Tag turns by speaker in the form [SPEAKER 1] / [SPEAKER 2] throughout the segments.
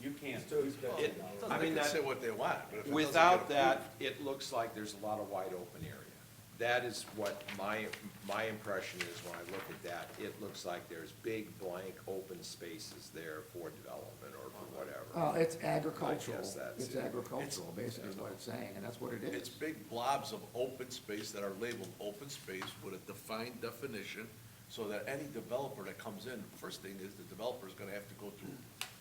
[SPEAKER 1] too expensive.
[SPEAKER 2] It-
[SPEAKER 1] now.
[SPEAKER 2] I
[SPEAKER 3] They
[SPEAKER 2] mean,
[SPEAKER 3] can
[SPEAKER 2] that-
[SPEAKER 3] say what they want, but if it doesn't get
[SPEAKER 2] Without
[SPEAKER 3] approved-
[SPEAKER 2] that, it looks like there's a lot of wide open area. That is what my, my impression is when I look at that. It looks like there's big blank open spaces there for development or for whatever.
[SPEAKER 4] Well, Uh, it's agricultural,
[SPEAKER 2] that's
[SPEAKER 4] it's
[SPEAKER 2] it.
[SPEAKER 4] agricultural, basically what it's saying, and that's what it
[SPEAKER 3] It's
[SPEAKER 4] is.
[SPEAKER 3] big blobs of open space that are labeled open space with a defined definition, so that any developer that comes in, first thing is the developer's gonna have to go through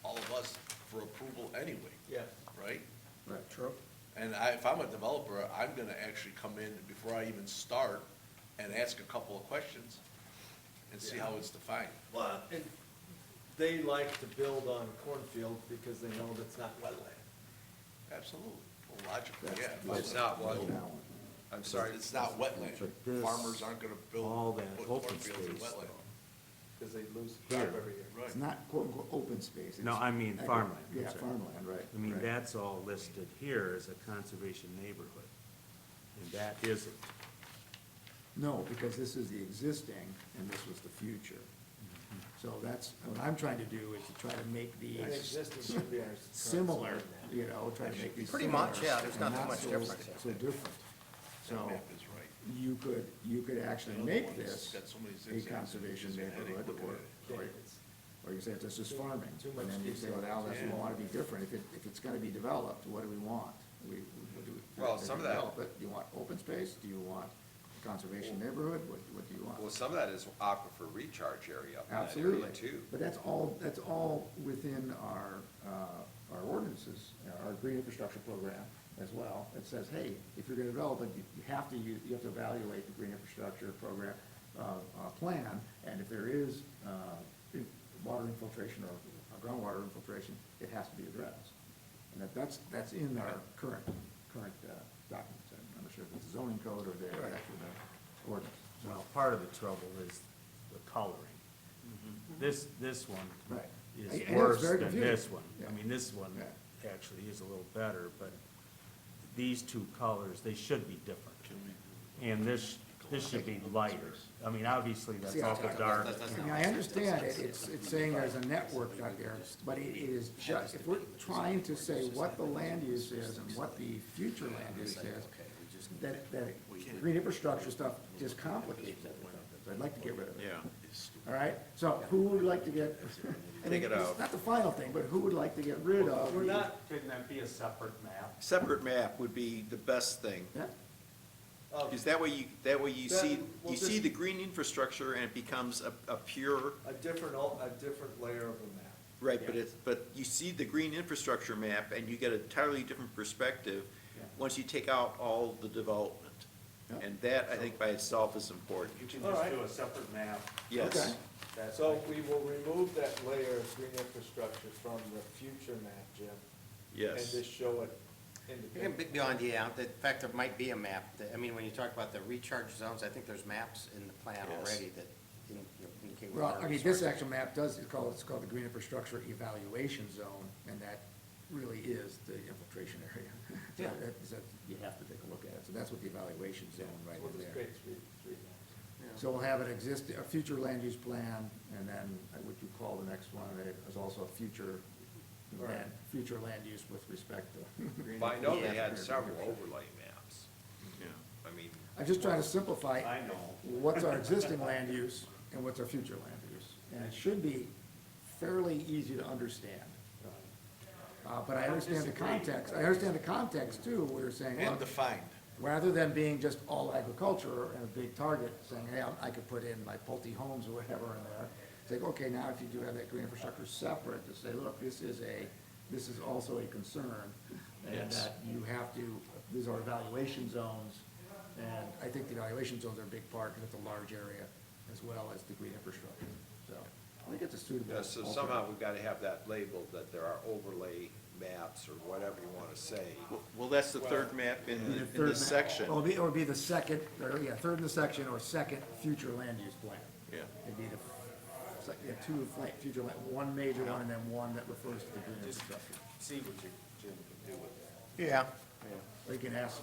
[SPEAKER 3] all of us for approval anyway,
[SPEAKER 1] Yes,
[SPEAKER 3] right?
[SPEAKER 4] Right, true.
[SPEAKER 3] And I, if I'm a developer, I'm gonna actually come in before I even start and ask a couple of questions and see how it's defined.
[SPEAKER 1] well, and they like to build on cornfields because they know that's not wetland.
[SPEAKER 3] Absolutely, Well, logically,
[SPEAKER 4] That's-
[SPEAKER 3] yeah.
[SPEAKER 2] It's not what, I'm sorry,
[SPEAKER 3] It's not wetland.
[SPEAKER 5] It's like this,
[SPEAKER 3] Farmers aren't gonna build,
[SPEAKER 5] all that
[SPEAKER 3] put
[SPEAKER 5] open
[SPEAKER 3] cornfields in
[SPEAKER 5] space,
[SPEAKER 3] wetland.
[SPEAKER 1] Because they lose the job
[SPEAKER 5] Here.
[SPEAKER 1] every year.
[SPEAKER 3] Right.
[SPEAKER 4] It's not quote unquote open space.
[SPEAKER 5] No,
[SPEAKER 4] it's
[SPEAKER 5] I mean
[SPEAKER 4] agri-
[SPEAKER 5] farmland, I'm
[SPEAKER 4] Yeah,
[SPEAKER 5] sorry.
[SPEAKER 4] farmland, right.
[SPEAKER 5] I mean,
[SPEAKER 4] right.
[SPEAKER 5] that's all listed here as a conservation neighborhood, and that isn't.
[SPEAKER 4] No, because this is the existing and this was the future. So that's, what I'm trying to do is to try to make
[SPEAKER 1] And
[SPEAKER 4] these
[SPEAKER 1] existing should be our. current
[SPEAKER 4] similar,
[SPEAKER 1] zoning map.
[SPEAKER 4] you know, try to make these.
[SPEAKER 6] Pretty much,
[SPEAKER 4] similar
[SPEAKER 6] yeah, there's
[SPEAKER 4] and
[SPEAKER 6] not that much
[SPEAKER 4] so-
[SPEAKER 6] difference.
[SPEAKER 4] So different.
[SPEAKER 3] That
[SPEAKER 4] So
[SPEAKER 3] map is right.
[SPEAKER 4] you could, you could actually make
[SPEAKER 3] Otherwise,
[SPEAKER 4] this
[SPEAKER 3] got so many
[SPEAKER 4] a
[SPEAKER 3] zigzags,
[SPEAKER 4] conservation
[SPEAKER 3] it's just a headache
[SPEAKER 4] neighborhood
[SPEAKER 3] looking
[SPEAKER 4] or,
[SPEAKER 3] at it.
[SPEAKER 1] Yeah,
[SPEAKER 4] or
[SPEAKER 1] it's-
[SPEAKER 4] Or you say it's just farming,
[SPEAKER 1] Too much
[SPEAKER 4] and then you say, well,
[SPEAKER 1] detail.
[SPEAKER 4] now that's, we
[SPEAKER 3] Yeah.
[SPEAKER 4] want to be different, if it, if it's gonna be developed, what do we want? We, we do.
[SPEAKER 2] Well, some of that-
[SPEAKER 4] develop it. Do you want open space, do you want conservation neighborhood, what, what do you
[SPEAKER 2] well,
[SPEAKER 4] want?
[SPEAKER 2] some of that is aquifer recharge area up in that area
[SPEAKER 4] Absolutely.
[SPEAKER 2] too.
[SPEAKER 4] But that's all, that's all within our, uh, our ordinances, our green infrastructure program as well, that says, hey, if you're gonna develop it, you you have to, you, you have to evaluate the green infrastructure program, uh, uh, plan, and if there is, uh, in- water infiltration or groundwater infiltration, it has to be addressed. And that, that's, that's in our current, current, uh, documents, I'm not sure if it's zoning code or the, actual uh, ordinance, so.
[SPEAKER 5] Well, part of the trouble is the coloring. This, this one
[SPEAKER 4] Mm-hmm. Right. I- I know
[SPEAKER 5] is
[SPEAKER 4] it's
[SPEAKER 5] worse
[SPEAKER 4] very
[SPEAKER 5] than
[SPEAKER 4] confusing.
[SPEAKER 5] this one.
[SPEAKER 4] Yeah.
[SPEAKER 5] I mean, this one
[SPEAKER 4] Yeah.
[SPEAKER 5] actually is a little better, but these two colors, they should be different. And this, this should be lighter. I mean, obviously, that's
[SPEAKER 4] See, I-
[SPEAKER 5] awful dark.
[SPEAKER 4] I mean, I understand it, it's, it's saying there's a network out there, but it is just, if we're trying to say what the land use is and what the future land use is, that, that green infrastructure stuff just complicates everything, so I'd like to get rid of it.
[SPEAKER 2] Yeah.
[SPEAKER 4] All right, so who would like to get, and
[SPEAKER 2] Take it
[SPEAKER 4] it's
[SPEAKER 2] out.
[SPEAKER 4] not the final thing, but who would like to get rid of?
[SPEAKER 5] We're not, couldn't that be a separate map?
[SPEAKER 7] Separate map would be the best thing,
[SPEAKER 4] Yeah,
[SPEAKER 1] Oh,
[SPEAKER 7] because that way you, that way you see,
[SPEAKER 1] That- well,
[SPEAKER 7] you see
[SPEAKER 1] just-
[SPEAKER 7] the green infrastructure and it becomes a, a pure,
[SPEAKER 1] A different, al- a different layer of the map.
[SPEAKER 7] right, but it's, but you see the green infrastructure map and you get an entirely different perspective
[SPEAKER 4] Yeah.
[SPEAKER 7] once you take out all the development.
[SPEAKER 4] Yeah.
[SPEAKER 7] And that, I think by itself is important,
[SPEAKER 5] You can
[SPEAKER 1] All
[SPEAKER 5] just
[SPEAKER 1] right.
[SPEAKER 5] do a separate map.
[SPEAKER 4] Okay.
[SPEAKER 7] yes.
[SPEAKER 5] That's
[SPEAKER 1] So we will remove that layer of green infrastructure from the future map, Jim.
[SPEAKER 7] Yes.
[SPEAKER 1] And just show it
[SPEAKER 6] You can
[SPEAKER 1] independently.
[SPEAKER 6] be beyond, yeah, the fact there might be a map, that- I mean, when you talk about the recharge zones, I think there's maps in the plan
[SPEAKER 7] Yes.
[SPEAKER 6] already that in- you know, indicate. what
[SPEAKER 4] well,
[SPEAKER 6] our
[SPEAKER 4] I mean, this
[SPEAKER 6] resources-
[SPEAKER 4] actual map does, it's called, it's called the green infrastructure evaluation zone, and that really is the infiltration area. So
[SPEAKER 6] Yeah.
[SPEAKER 4] that- that- You have to take a look at it, so that's what the evaluation zone right
[SPEAKER 1] We'll
[SPEAKER 4] in
[SPEAKER 1] just
[SPEAKER 4] there.
[SPEAKER 1] create three, three maps.
[SPEAKER 4] So we'll have an exist, a future land use plan, and then uh, what you call the next one, it is also a future land, future land use with respect to.
[SPEAKER 2] But I know they had several overlay maps. I mean,
[SPEAKER 4] I'm just trying to simplify.
[SPEAKER 5] I know.
[SPEAKER 4] What's our existing land use and what's our future land use? And it should be fairly easy to understand. Uh, but I understand the context, I understand the context too, we were saying, well,
[SPEAKER 3] And defined,
[SPEAKER 4] rather than being just all agriculture and a big target, saying, hey, I- I could put in my Pulte homes or whatever in there. It's like, okay, now if you do have that green infrastructure separate, to say, look, this is a, this is also a concern. And
[SPEAKER 7] Yes.
[SPEAKER 4] that you have to, these are evaluation zones, and I think the evaluation zones are a big part, because it's a large area, as well as the green infrastructure. So, I think it's a suitable.
[SPEAKER 2] Yeah, so
[SPEAKER 4] alternative.
[SPEAKER 2] somehow we've gotta have that labeled, that there are overlay maps or whatever you wanna say.
[SPEAKER 7] Well- Well, that's the third map in, the- in this section.
[SPEAKER 4] Or be, or be the second, or, yeah, third in the section, or second future land use plan.
[SPEAKER 7] Yeah.
[SPEAKER 4] It'd be the, it's like, yeah, two fla- future land, one major one, and then one that refers to the green infrastructure.
[SPEAKER 5] See what you, Jim can do with it.
[SPEAKER 6] Yeah,
[SPEAKER 4] Or you can ask,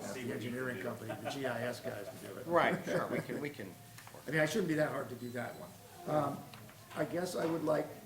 [SPEAKER 4] ask the engineering company, the GIS guys to do it.
[SPEAKER 6] right, sure, we can, we can.
[SPEAKER 4] I mean, I shouldn't be that hard to do that one. Um, I guess I would like